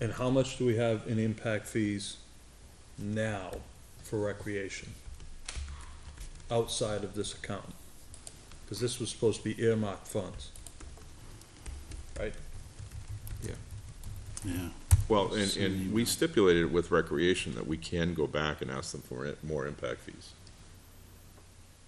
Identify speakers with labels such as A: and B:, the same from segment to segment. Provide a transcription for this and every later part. A: And how much do we have in impact fees now for recreation? Outside of this account? Cause this was supposed to be earmarked funds. Right?
B: Yeah.
C: Well, and, and we stipulated with recreation that we can go back and ask them for it- more impact fees.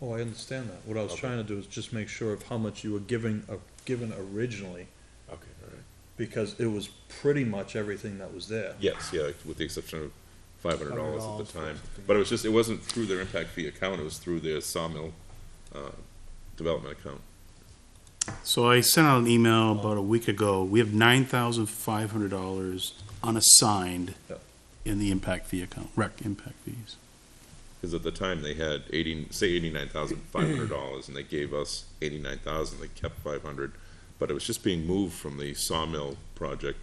A: Oh, I understand that. What I was
C: Okay.
A: trying to do is just make sure of how much you were giving, uh, given originally,
C: Okay, all right.
A: because it was pretty much everything that was there.
C: Yes, yeah, with the exception of five hundred dollars at
D: $500
C: the
D: for
C: time.
D: something.
C: But it was just, it wasn't through their impact fee account, it was through their sawmill, uh, development account.
B: So I sent out an email about a week ago. We have nine thousand five hundred dollars unassigned
A: Yep.
B: in the impact fee account, rec impact fees.
C: Because at the time, they had eighty, say eighty-nine thousand five hundred dollars, and they gave us eighty-nine thousand, they kept five hundred. But it was just being moved from the sawmill project.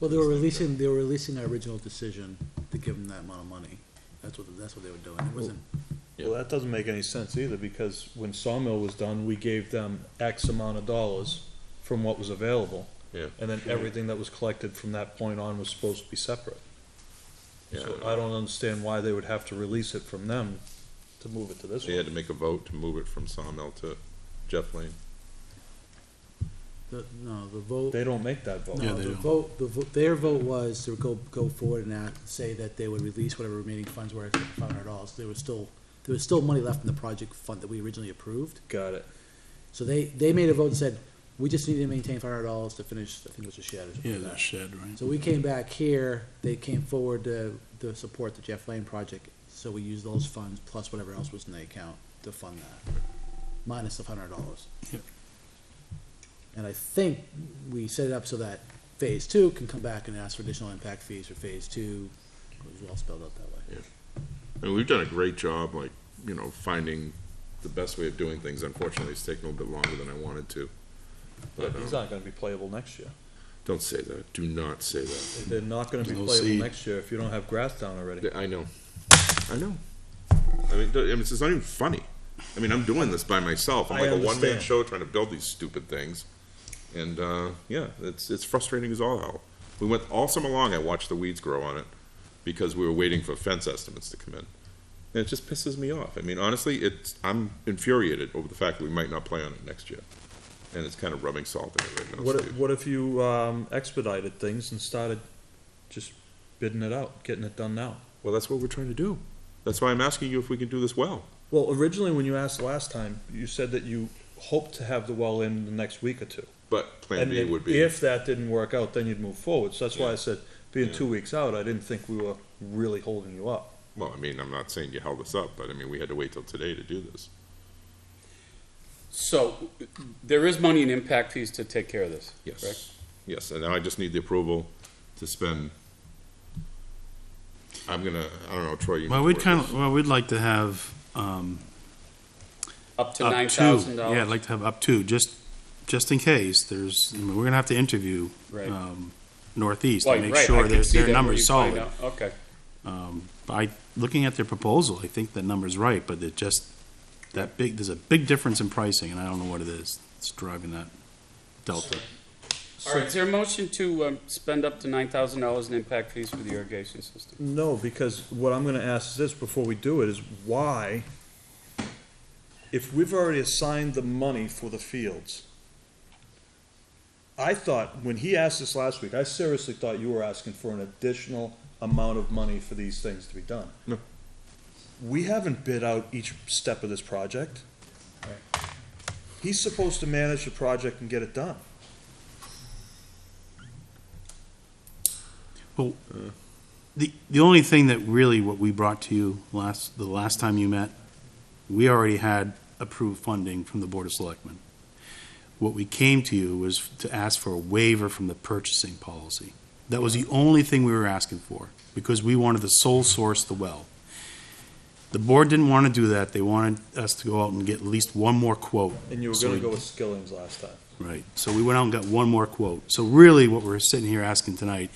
D: Well, they were releasing, they were releasing our original decision to give them that amount of money. That's what, that's what they were doing. It wasn't,
A: Well, that doesn't make any sense either, because when Sawmill was done, we gave them X amount of dollars from what was available.
C: Yeah.
A: And then everything that was collected from that point on was supposed to be separate.
C: Yeah,
A: So I don't understand why they would have to release it from them to move it to this
C: They
A: one.
C: had to make a vote to move it from sawmill to Jeff Lane.
D: the, no, the vote.
A: They don't make that vote.
B: Yeah,
D: No,
B: they
D: the
B: don't.
D: vote, the, vo- their vote was to go, go forward and act, say that they would release whatever remaining funds were, five hundred dollars. There was still, there was still money left in the project fund that we originally approved.
A: Got it.
D: So they, they made a vote and said, we just need to maintain five hundred dollars to finish, I think it was a shed or something
B: Oh, Yeah,
D: like that.
B: that shed, right?
D: So we came back here, they came forward to, to support the Jeff Lane project, so we used those funds plus whatever else was in the account to fund that, minus the hundred dollars.
B: Yep.
D: And I think we set it up so that phase two can come back and ask for additional impact fees for phase two, it was all spelled out that way.
C: And we've done a great job, like, you know, finding the best way of doing things. Unfortunately, it's taken a little bit longer than I wanted to.
A: But
C: But,
A: he's
C: um,
A: not gonna be playable next year.
C: don't say that. Do not say that.
A: They're not gonna be
B: We'll
A: playable
B: see.
A: next year if you don't have grass down already.
C: I know. I know. I mean, don't- I mean, it's just not even funny. I mean, I'm doing this by myself. I'm
A: I
C: like a one-man
A: understand.
C: show trying to build these stupid things. And, uh, yeah, it's, it's frustrating as all hell. We went all summer long, I watched the weeds grow on it because we were waiting for fence estimates to come in. And it just pisses me off. I mean, honestly, it's, I'm infuriated over the fact that we might not play on it next year. And it's kind of rubbing salt in it right now,
A: What,
C: Steve.
A: if- what if you, um, expedited things and started just bidding it out, getting it done now?
C: Well, that's what we're trying to do. That's why I'm asking you if we can do this well.
A: Well, originally, when you asked last time, you said that you hoped to have the well in the next week or two.
C: But Plan
A: And
C: B
A: then
C: would be,
A: If that didn't work out, then you'd move forward. So that's why I said, being two weeks out, I didn't think we were really holding you up.
C: well, I mean, I'm not saying you held us up, but I mean, we had to wait till today to do this.
E: So there is money in impact fees to take care of this. correct?
C: Yes, yes, and now I just need the approval to spend. I'm gonna, I don't know, Troy, you.
B: Well,
C: know
B: we'd
C: where it
B: kind
C: is.
B: of, well, we'd like to have, um,
E: Up to nine
B: up to.
E: thousand
B: Yeah, I'd
E: dollars.
B: like to have up to, just, just in case, there's, I mean, we're gonna have to interview,
E: Right.
B: um, Northeast
E: Well,
B: to make
E: right, I
B: sure
E: can
B: their,
E: see
B: their
E: that where
B: number's
E: you find
B: solid.
E: out. Okay,
B: Um, I, looking at their proposal, I think the number's right, but it just, that big, there's a big difference in pricing, and I don't know what it is. It's driving that delta.
E: all right, is there a motion to, um, spend up to nine thousand dollars in impact fees for the irrigation system?
A: No, because what I'm gonna ask is this before we do it, is why, if we've already assigned the money for the fields, I thought, when he asked this last week, I seriously thought you were asking for an additional amount of money for these things to be done.
C: No.
A: We haven't bid out each step of this project. He's supposed to manage the project and get it done.
B: The, the only thing that really, what we brought to you last, the last time you met, we already had approved funding from the Board of Selectmen. What we came to you was to ask for a waiver from the purchasing policy. That was the only thing we were asking for, because we wanted to sole source the well. The board didn't want to do that, they wanted us to go out and get at least one more quote.
A: And you were
B: So
A: gonna
B: we-
A: go with Skilling's last time.
B: Right, so we went out and got one more quote. So really, what we're sitting here asking tonight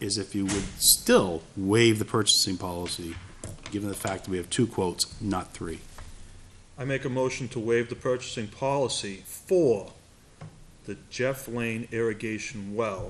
B: is if you would still waive the purchasing policy, given the fact that we have two quotes, not three.
A: I make a motion to waive the purchasing policy for the Jeff Lane irrigation well